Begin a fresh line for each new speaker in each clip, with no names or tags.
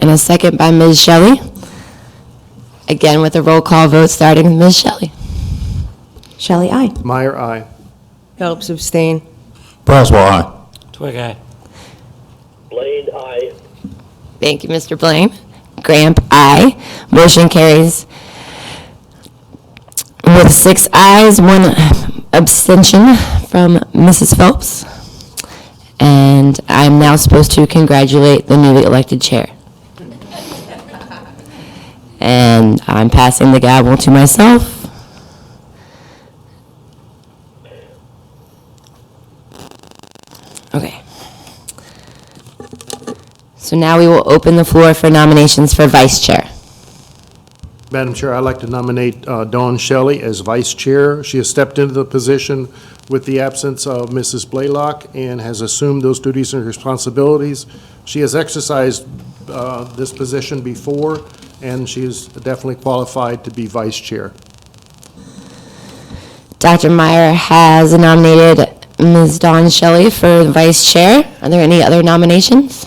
and a second by Ms. Shelley. Again, with a roll call vote, starting with Ms. Shelley.
Shelley, aye.
Meyer, aye.
Phelps, abstain.
Braswell, aye.
Twig eye.
Blade, aye.
Thank you, Mr. Blaine. Gramp, aye. Motion carries with six ayes, one abstention from Mrs. Phelps. And I'm now supposed to congratulate the newly elected chair. And I'm passing the gavel to myself. Okay. So now we will open the floor for nominations for vice chair.
Madam Chair, I'd like to nominate uh, Dawn Shelley as vice chair. She has stepped into the position with the absence of Mrs. Blaylock and has assumed those duties and responsibilities. She has exercised uh, this position before, and she is definitely qualified to be vice chair.
Dr. Meyer has nominated Ms. Dawn Shelley for vice chair. Are there any other nominations?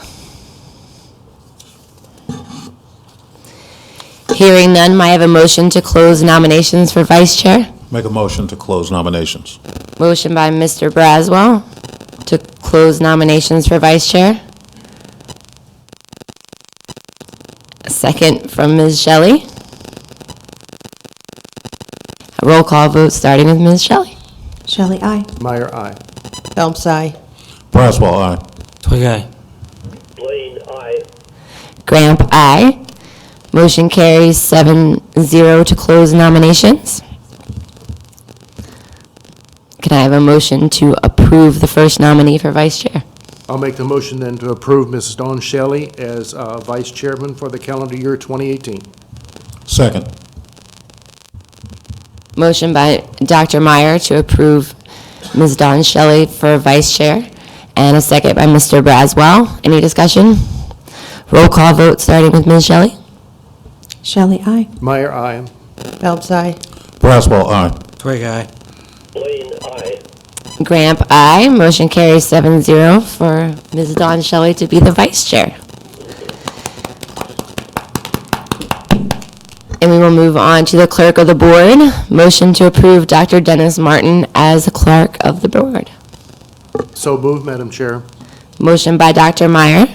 Hearing none, may I have a motion to close nominations for vice chair?
Make a motion to close nominations.
Motion by Mr. Braswell to close nominations for vice chair. A Second from Ms. Shelley. A Roll call vote starting with Ms. Shelley.
Shelley, aye.
Meyer, aye.
Phelps, aye.
Braswell, aye.
Twig eye.
Blade, aye.
Gramp, aye. Motion carries seven zero to close nominations. Can I have a motion to approve the first nominee for vice chair?
I'll make the motion then to approve Mrs. Dawn Shelley as uh, vice chairman for the calendar year 2018.
Second.
Motion by Dr. Meyer to approve Ms. Dawn Shelley for vice chair, and a second by Mr. Braswell. Any discussion? Roll call vote, starting with Ms. Shelley.
Shelley, aye.
Meyer, aye.
Phelps, aye.
Braswell, aye.
Twig eye.
Blade, aye.
Gramp, aye. Motion carries seven zero for Ms. Dawn Shelley to be the vice chair. And we will move on to the clerk of the board. Motion to approve Dr. Dennis Martin as clerk of the board.
So moved, Madam Chair.
Motion by Dr. Meyer.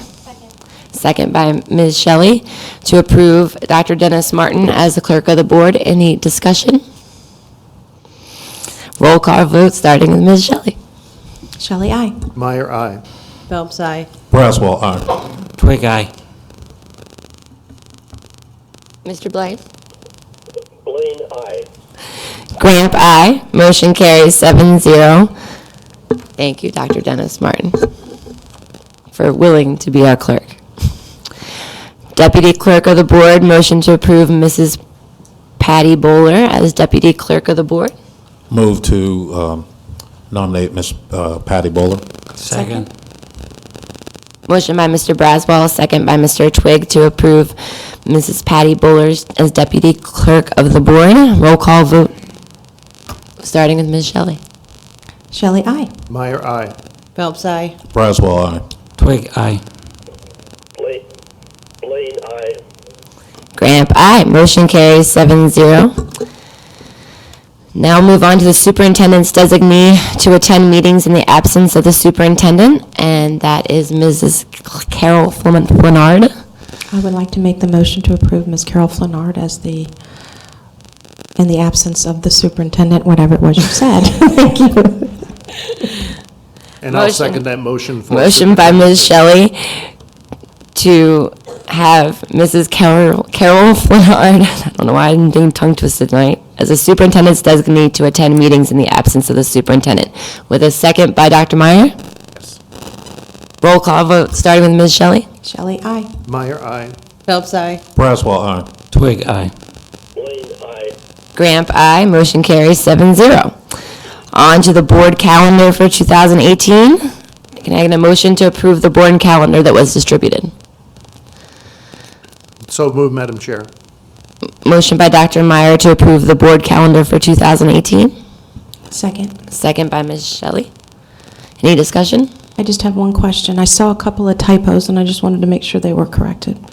Second by Ms. Shelley to approve Dr. Dennis Martin as the clerk of the board. Any discussion? Roll call vote, starting with Ms. Shelley.
Shelley, aye.
Meyer, aye.
Phelps, aye.
Braswell, aye.
Twig eye.
Mr. Blaine?
Blade, aye.
Gramp, aye. Motion carries seven zero. Thank you, Dr. Dennis Martin, for willing to be our clerk. Deputy Clerk of the Board, motion to approve Mrs. Patty Bowler as Deputy Clerk of the Board.
Move to um, nominate Miss uh, Patty Bowler.
Second.
Motion by Mr. Braswell, second by Mr. Twig to approve Mrs. Patty Bowlers as Deputy Clerk of the Board. Roll call vote, starting with Ms. Shelley.
Shelley, aye.
Meyer, aye.
Phelps, aye.
Braswell, aye.
Twig eye.
Blade, Blade, aye.
Gramp, aye. Motion carries seven zero. Now move on to the superintendent's designee to attend meetings in the absence of the superintendent, and that is Mrs. Carol Flamen- Flanard.
I would like to make the motion to approve Ms. Carol Flannard as the, in the absence of the superintendent, whatever it was you said. Thank you.
And I'll
Motion.
second that motion for.
Motion by Ms. Shelley to have Mrs. Carol, Carol Flanard, I don't know why I'm doing tongue twisted tonight, as a superintendent's designee to attend meetings in the absence of the superintendent. With a second by Dr. Meyer? Roll call vote, starting with Ms. Shelley.
Shelley, aye.
Meyer, aye.
Phelps, aye.
Braswell, aye.
Twig eye.
Blade, aye.
Gramp, aye. Motion carries seven zero. On to the board calendar for 2018. Can I get a motion to approve the board calendar that was distributed?
So moved, Madam Chair.
Motion by Dr. Meyer to approve the board calendar for 2018,
Second.
second by Ms. Shelley. Any discussion?
I just have one question. I saw a couple of typos, and I just wanted to make sure they were corrected.